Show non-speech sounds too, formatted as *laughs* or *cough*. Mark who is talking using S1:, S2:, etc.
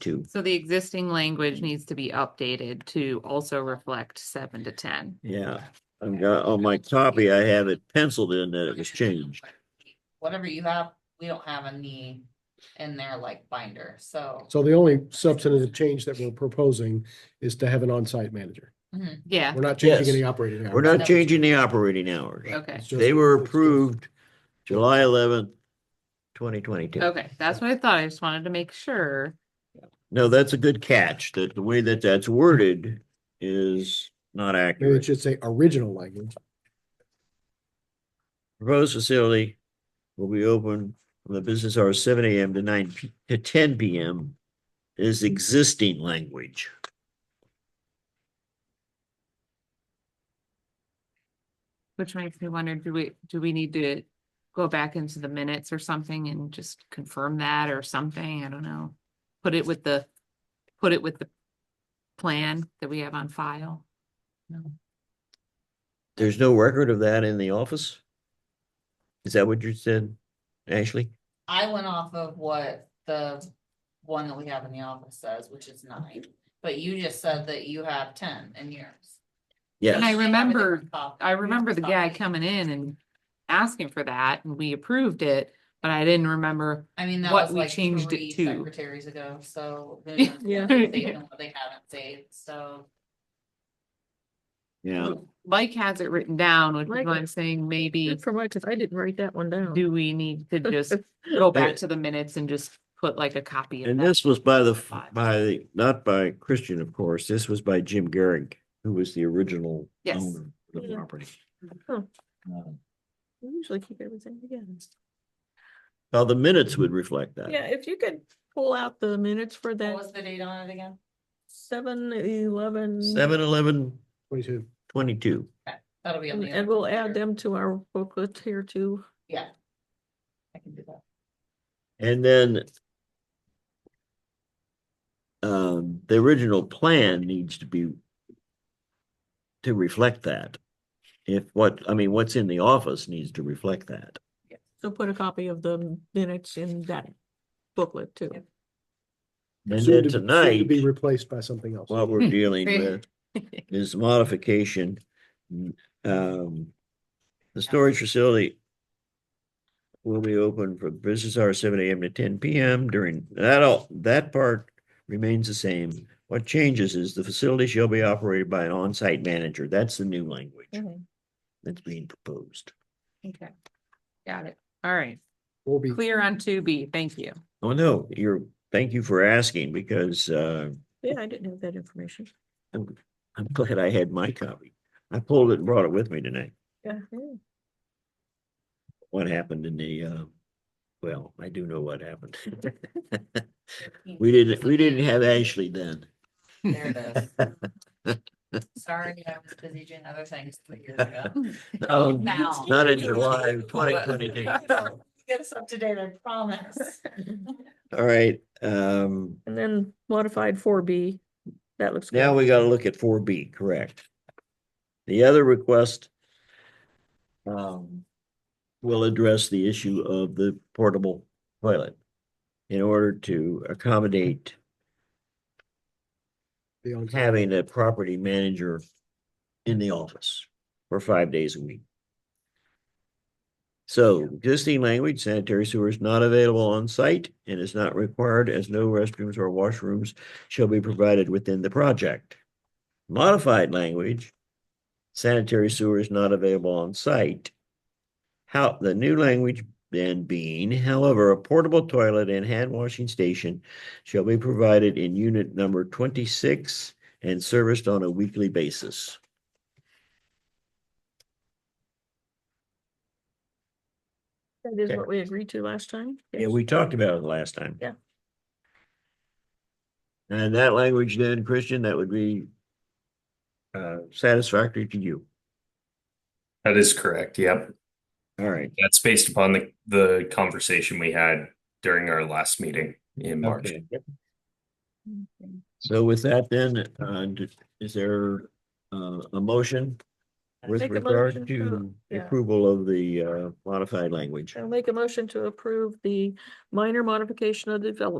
S1: two.
S2: So the existing language needs to be updated to also reflect seven to ten.
S1: Yeah, I've got, on my copy, I have it penciled in that it was changed.
S3: Whatever you have, we don't have in the, in there like binder, so.
S4: So the only substantive change that we're proposing is to have an on-site manager.
S3: Mhm.
S2: Yeah,
S4: We're not changing
S1: Yes.
S4: any operating. hours.
S1: We're not changing the operating hours.
S2: okay,
S4: It's just-
S1: They were
S4: it's just-
S1: approved July eleventh, twenty twenty-two.
S2: okay, that's what I thought, I just wanted to make sure.
S1: No, that's a good catch, that the way that that's worded is not
S4: Maybe it
S1: accurate.
S4: should say original language.
S1: Proposed facility will be open from the business hours seven AM to nine, p- to ten PM is existing language.
S2: Which makes me wonder, do we, do we need to go back into the minutes or something and just confirm that or something? I don't know. Put it with the, put it with the plan that we have on file. No.
S1: There's no record of that in the office? Is that what you said, Ashley?
S3: I went off of what the one that we have in the office says, which is nine, but you just said that you have ten in yours.
S2: And I
S1: Yes,
S2: remember, I remember the guy coming in and asking for that and we approved it, but I didn't remember
S3: I mean, that
S2: what
S3: was
S2: we
S3: like
S2: changed it
S3: three
S2: to.
S3: secretaries ago, so. who
S2: *laughs* Yeah.
S3: knows what they've saved and what They haven't saved, so.
S1: yeah,
S2: Mike has it written down, which is
S5: Mike-
S2: why I'm saying maybe
S5: Good for Mike, 'cause I didn't write that one down.
S2: do we need to *laughs* just go back
S1: But-
S2: to the minutes and just put like a copy of
S1: and
S2: that?
S1: this was by the, by, the not by Christian, of course, this was by Jim Garrick, who was the original
S2: Yes. Mm-hmm.
S1: owner of the
S5: Yeah.
S1: property.
S5: Huh.
S1: Um,
S5: We usually keep everything together.
S1: Well, the minutes would reflect that.
S5: Yeah, if you could pull out the minutes for
S3: What was
S5: that
S3: the date on it again?
S5: seven, eleven.
S1: Seven, eleven,
S4: Twenty-two.
S1: twenty-two.
S3: That'll be on
S5: And
S3: the.
S5: and
S3: other
S5: we'll add
S3: computer.
S5: them to our booklet here too.
S3: Yeah. I can do that.
S1: And then um, the original plan needs to be to reflect that. If what, I mean, what's in the office needs to reflect that.
S5: So put a copy of the minutes in that booklet too.
S3: Yep.
S1: And
S4: Soon
S1: then
S4: to- soon to
S1: tonight,
S4: Be replaced by something else.
S1: what we're dealing with is modification. Um, the storage facility will be open for business hours seven AM to ten PM during, that all, that part remains the same. What changes is the facility shall be operated by an on-site manager. That's the new language
S5: Mhm.
S1: that's being proposed.
S2: Okay, got it. All right,
S4: We'll be,
S2: clear on two B, thank you.
S1: Oh, no, you're, thank you for asking because, uh,
S5: Yeah, I didn't have that information.
S1: I'm, I'm glad I had my copy. I pulled it and brought it with me tonight.
S5: Yeah. yeah.
S1: what happened in the, uh, well, I do know what happened. *laughs* We didn't, we didn't have Ashley then.
S3: There it
S1: *laughs*
S3: is. Sorry, I was busy doing other things three years ago.
S1: *laughs*
S3: Oh,
S1: No,
S3: Now.
S1: Oh, not in July of 2022.
S3: *laughs* Get us up to date, I promise.
S1: All right, um,
S5: And then modified four B, that looks. good.
S1: now we gotta look at four B, correct? The other request um, will address the issue of the portable toilet in order to accommodate
S4: the on-
S1: having a property manager in the office for five days a week. So existing language, sanitary sewer is not available on site and is not required as no restrooms or washrooms shall be provided within the project. Modified language, sanitary sewer is not available on site. How, the new language then being, however, a portable toilet and hand washing station shall be provided in unit number twenty-six and serviced on a weekly basis.
S5: That is
S1: Okay.
S5: what we agreed to last time.
S1: Yeah,
S5: Yes.
S1: we talked about it last time.
S5: Yeah.
S1: And that language then, Christian, that would be uh, satisfactory to you.
S6: That is correct. Yep.
S1: All right.
S6: That's based upon the, the conversation we had during our last meeting in March.
S1: Okay. So with that then, uh, d- is there uh, a motion with
S5: Make a
S1: regard
S5: motion
S1: to
S5: to- yeah.
S1: approval of the uh, modified language?
S5: I'll make a motion to approve the minor modification of the development